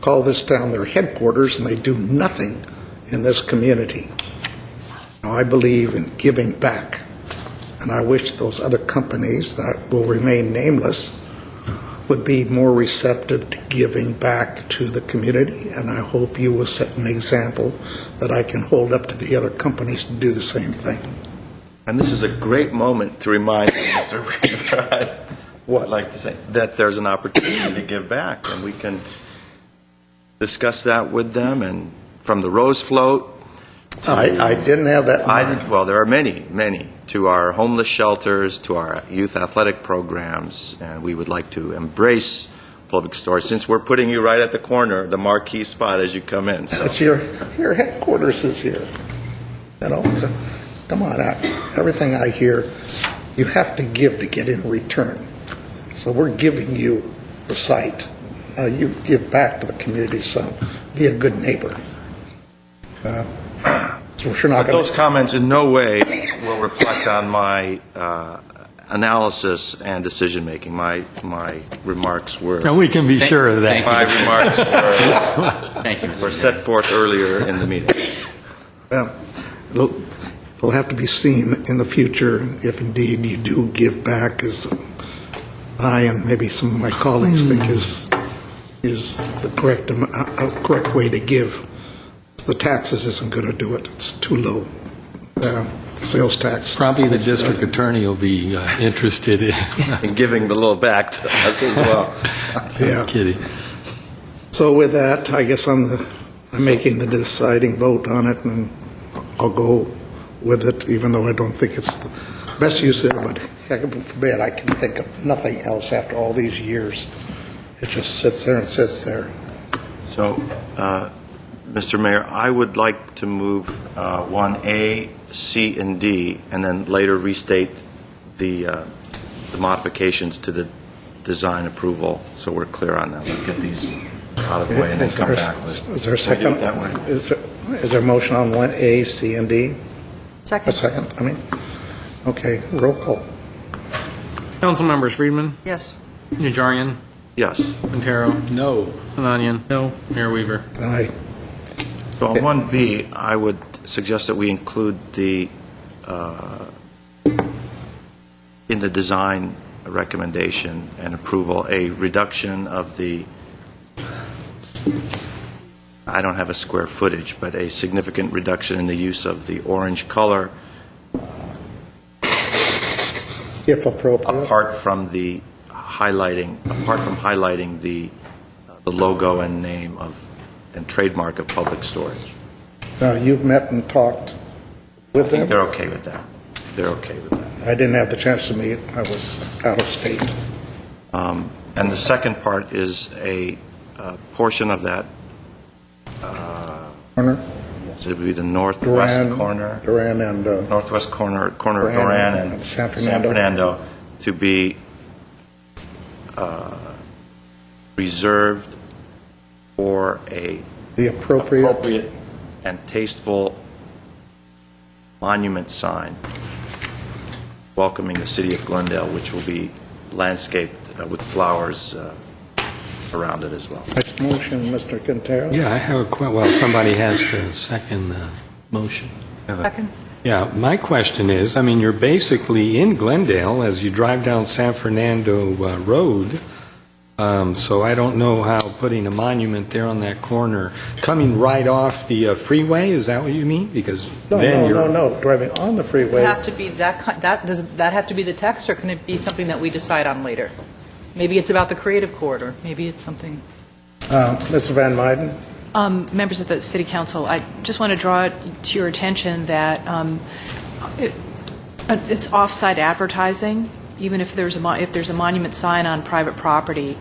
call this town their headquarters, and they do nothing in this community. Now, I believe in giving back, and I wish those other companies that will remain nameless would be more receptive to giving back to the community, and I hope you will set an example that I can hold up to the other companies to do the same thing. And this is a great moment to remind you, Mr. Weaver, what I'd like to say, that there's an opportunity to give back, and we can discuss that with them, and from the Rose Float, I, I didn't have that in mind. I, well, there are many, many, to our homeless shelters, to our youth athletic programs, and we would like to embrace public stores, since we're putting you right at the corner, the marquee spot as you come in, so. That's your, your headquarters is here. You know, come on, I- everything I hear, you have to give to get in return. So we're giving you the site. Now you give back to the community some, be a good neighbor. Uh, So we're not going Those to, comments in no way will reflect on my uh, analysis and decision-making. My, my remarks were, And we can be sure of that. my remarks were- Thank you, were Mr. Mayor. set forth earlier in the meeting. well, it'll it'll have to be seen in the future if indeed you do give back as I and maybe some of my colleagues think is, is the correct, am- uh, uh, correct way to give. The taxes isn't going to do it, it's too low, Uh, sales tax. Probably the district attorney will be uh, interested in, And giving the little back to us as well. Yeah. just kidding. So with that, I guess I'm, the- I'm making the deciding vote on it, and I'll go with it, even though I don't think it's the best use of it, but heck forbid, I can think of nothing else after all these years. It just sits there and sits there. So, uh, Mr. Mayor, I would like to move uh, 1A, C, and D, and then later restate the uh, the modifications to the design approval, so we're clear on that. We'll get these out of the way and then Is come there- back with... Is there a We'll do second? it that way. Is there, is there a motion on one, A, C, and D? A Second. second, I mean, okay, roll call. Council members Friedman, Yes. Najarian, Yes. Quintero, No. Sinanian. No. Mayor Weaver. Aye. So on 1B, I would suggest that we include the, uh, in the design recommendation and approval, a reduction of the, I don't have a square footage, but a significant reduction in the use of the orange color If appropriate. apart from the highlighting, apart from highlighting the uh, the logo and name of, and trademark of Public Storage. Now, you've met and talked with them? They're okay with that. They're okay with that. I didn't have the chance to meet, I was out of state. Um, And the second part is a uh, portion of that, Warner, so it would be the Duran. northwest corner, Duran and, uh, northwest corner, corner of Duran Duran and and San San Fernando. Fernando, to be uh, reserved for a the appropriate, appropriate and tasteful monument sign welcoming the city of Glendale, which will be landscaped uh, with flowers uh, around it as well. Nice motion, Mr. Quintero. Yeah, I have a que, well, somebody has to second the motion. Second. Yeah, my question is, I mean, you're basically in Glendale as you drive down San Fernando uh, Road, um, so I don't know how putting a monument there on that corner, coming right off the uh, freeway, is that what you mean? Because No, then no, you're... no, no, driving on the Does it freeway. have to be that, ki- that, does that have to be the text, or can it be something that we decide on later? Maybe it's about the creative corridor, maybe it's something... Uh, Mr. Van Miden, Um, Members of the City Council, I just want to draw it to your attention that um, it- it's off-site advertising, even if there's a, mo- if there's a monument sign on private property,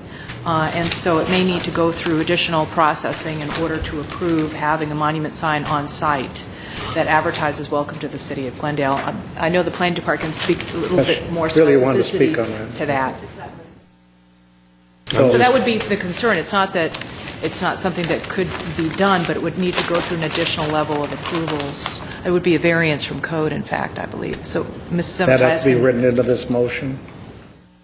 Uh, and so it may need to go through additional processing in order to approve having a monument sign on site that advertises "Welcome to the City of Glendale." Um, I know the planning department can speak a little bit more Really wanted to speak specificity on that. to that. So- So that would be the concern. It's not that, it's not something that could be done, but it would need to go through an additional level of approvals. It would be a variance from code, in fact, I believe. So Mrs. that have to be Zemmetis, written into this motion?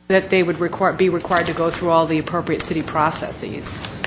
that they would require, be required to go through all the appropriate city processes.